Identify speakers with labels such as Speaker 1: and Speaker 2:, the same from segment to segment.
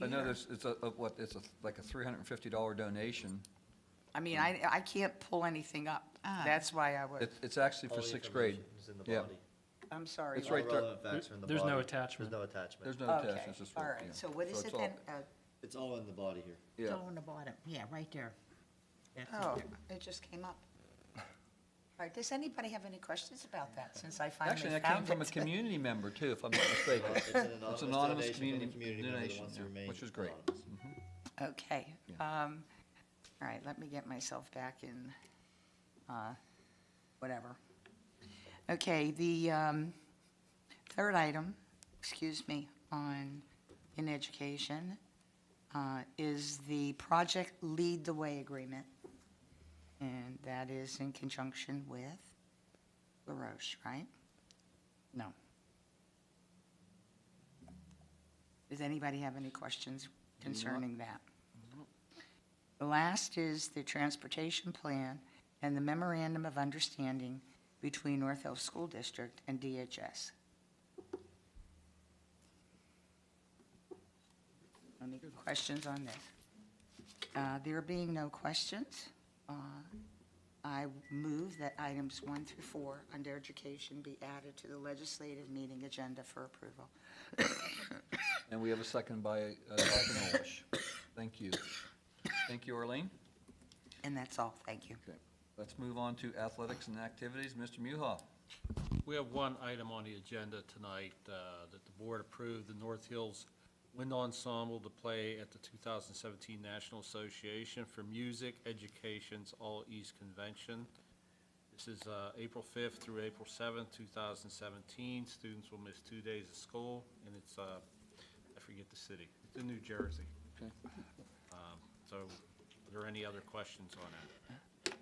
Speaker 1: another,
Speaker 2: computer.
Speaker 1: s- it's a, a- what, it's a, like a $350 donation.
Speaker 2: I mean, I, I can't pull anything up.
Speaker 3: Ah.
Speaker 2: That's why I was,
Speaker 1: It's, it's actually
Speaker 4: All
Speaker 1: for
Speaker 4: the
Speaker 1: sixth grade.
Speaker 4: information is in the
Speaker 1: Yeah.
Speaker 4: body.
Speaker 2: I'm sorry.
Speaker 1: It's right
Speaker 4: All
Speaker 1: there.
Speaker 4: relevant facts are in the
Speaker 5: There's no
Speaker 4: body.
Speaker 5: attachment.
Speaker 4: There's no attachment.
Speaker 1: There's no
Speaker 2: Okay,
Speaker 1: attachment, it's just.
Speaker 2: all
Speaker 1: what- yeah.
Speaker 2: right, so what is
Speaker 1: it's
Speaker 2: it
Speaker 1: all-
Speaker 2: then? Uh,
Speaker 4: It's all in the body here.
Speaker 1: Yeah,
Speaker 3: Down the bottom, yeah, right there. That's
Speaker 2: Uh,
Speaker 3: it.
Speaker 2: Oh, it just came up. All right, does anybody have any questions about that, since I
Speaker 1: actually,
Speaker 2: finally
Speaker 1: that came
Speaker 2: found
Speaker 1: from a
Speaker 2: it?
Speaker 1: community member too, if I'm not mistaken.
Speaker 4: It's an anonymous
Speaker 1: It's anonymous
Speaker 4: donation from
Speaker 1: community,
Speaker 4: a community member that
Speaker 1: donation,
Speaker 4: wants to
Speaker 1: yeah,
Speaker 4: remain
Speaker 1: which is great. Mm.
Speaker 4: anonymous.
Speaker 2: Okay, um, all right, let me get myself back in, uh, whatever. Okay, the, um, third item, excuse me, on, in education, uh, is the Project Lead the Way Agreement. And that is in conjunction with LaRoche, right? No. Does anybody have any questions concerning that? The last is the transportation plan and the memorandum of understanding between North Hills School District and DHS. Any questions on this? Uh, There being no questions, uh, I move that items one through four under education be added to the legislative meeting agenda for approval.
Speaker 1: And we have a second by uh, Dr. Nolish. Thank you. Thank you, Arlene.
Speaker 2: And that's all, thank you.
Speaker 1: Okay, let's move on to athletics and activities. Mr. Muha.
Speaker 6: We have one item on the agenda tonight, uh, that the board approved the North Hills Wind Ensemble to play at the 2017 National Association for Music Education's All East Convention. This is uh, April 5th through April 7th, 2017. Students will miss two days of school, and it's, uh, I forget the city, it's in New Jersey.
Speaker 1: Okay.
Speaker 6: Um, So are there any other questions on that?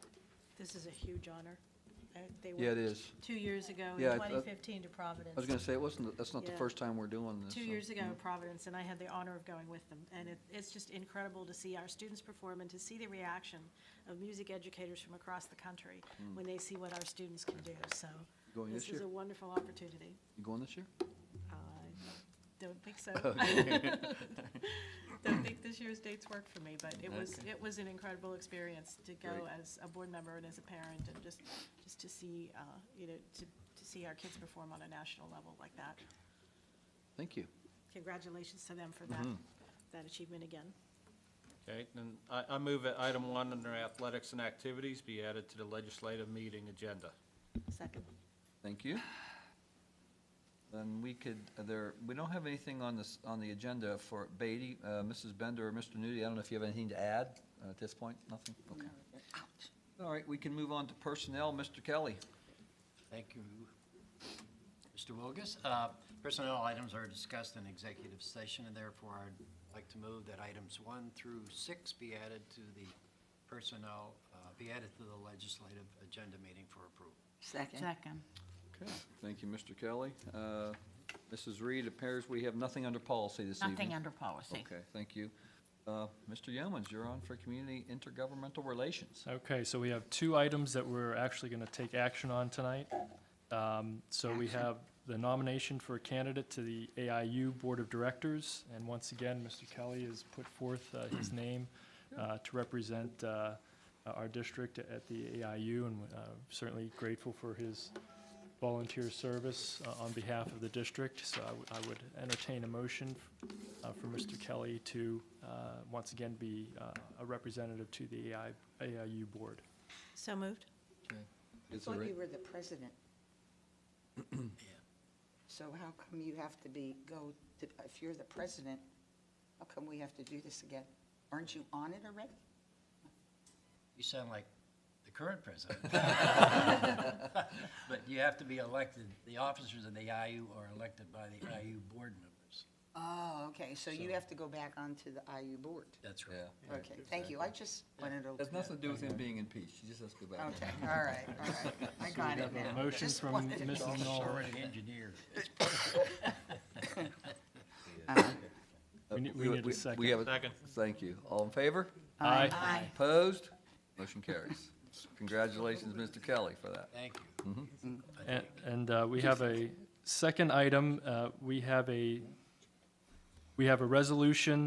Speaker 7: This is a huge honor. Uh, They
Speaker 1: Yeah, it
Speaker 7: went
Speaker 1: is.
Speaker 7: two years ago in
Speaker 1: Yeah, I-
Speaker 7: 2015
Speaker 1: I
Speaker 7: to
Speaker 1: was
Speaker 7: Providence.
Speaker 1: gonna say, it wasn't, that's not the
Speaker 7: Yeah.
Speaker 1: first time we're doing this.
Speaker 7: Two
Speaker 1: so-
Speaker 7: years ago in Providence, and I had the honor of going with them. And it, it's just incredible to see our students perform and to see the reaction of music educators from across the country when they see what our students can do. So
Speaker 1: Hmm. Going
Speaker 7: this
Speaker 1: this
Speaker 7: is
Speaker 1: year?
Speaker 7: a wonderful opportunity.
Speaker 1: You going this year?
Speaker 7: I Uh, don't think so. Don't think this year's dates work for me, but it was,
Speaker 1: Okay.
Speaker 7: it was an incredible experience to go
Speaker 1: Great.
Speaker 7: as a board member and as a parent and just, just to see, uh, you know, to, to see our kids perform on a national level like that.
Speaker 1: Thank you.
Speaker 7: Congratulations to them for that,
Speaker 1: Mm-hmm.
Speaker 7: that achievement again.
Speaker 6: Okay, then I, I move that item one under athletics and activities be added to the legislative meeting agenda.
Speaker 7: Second.
Speaker 1: Thank you. Then we could, uh, there, we don't have anything on this, on the agenda for Beatty, uh, Mrs. Bender or Mr. Nudi. I don't know if you have anything to add uh, at this point? Nothing? Okay. All right, we can move on to personnel. Mr. Kelly.
Speaker 8: Thank you, Mr. Wilgus. Uh, Personnel items are discussed in executive session, and therefore I'd like to move that items one through six be added to the personnel, uh, be added to the legislative agenda meeting for approval.
Speaker 2: Second.
Speaker 3: Second.
Speaker 1: Okay. Thank you, Mr. Kelly. Uh, Mrs. Reed, appears we have nothing under policy this evening.
Speaker 3: Nothing under policy.
Speaker 1: Okay, thank you. Uh, Mr. Yeomans, you're on for Community Intergovernmental Relations.
Speaker 5: Okay, so we have two items that we're actually going to take action on tonight. Um, So we have the nomination for a candidate to the AIU Board of Directors, and once again, Mr. Kelly has put forth uh, his name uh, to represent uh, our district at the AIU, and uh, certainly grateful for his volunteer service uh, on behalf of the district. So I would- I would entertain a motion uh, for Mr. Kelly to, uh, once again, be uh, a representative to the AI AIU board.
Speaker 7: So moved?
Speaker 1: Is there
Speaker 2: Thought
Speaker 1: a-
Speaker 2: you were the president. So how come you have to be, go, to- if you're the president, how come we have to do this again? Aren't you on it already?
Speaker 8: You sound like the current president. But you have to be elected, the officers of the IU are elected by the IU board members.
Speaker 2: Oh, okay, so you
Speaker 8: So-
Speaker 2: have to go back onto the IU board.
Speaker 8: That's
Speaker 1: Yeah.
Speaker 8: right.
Speaker 2: Okay, thank you, I just wanted to,
Speaker 1: Has nothing to do with him being in peace. He just has to go back.
Speaker 2: okay, all right, all right, I got it
Speaker 5: We have
Speaker 2: now.
Speaker 5: a motion
Speaker 2: Just
Speaker 5: from
Speaker 2: wanted to-
Speaker 5: Mrs. Knoll.
Speaker 8: Already engineered.
Speaker 1: Uh,
Speaker 5: We need- we need a second.
Speaker 1: we have a-
Speaker 6: Second.
Speaker 1: Thank you. All in favor?
Speaker 5: Aye.
Speaker 1: Opposed? Motion carries. Congratulations, Mr. Kelly, for that.
Speaker 8: Thank you.
Speaker 5: A- And uh, we have a second item, uh, we have a, we have a resolution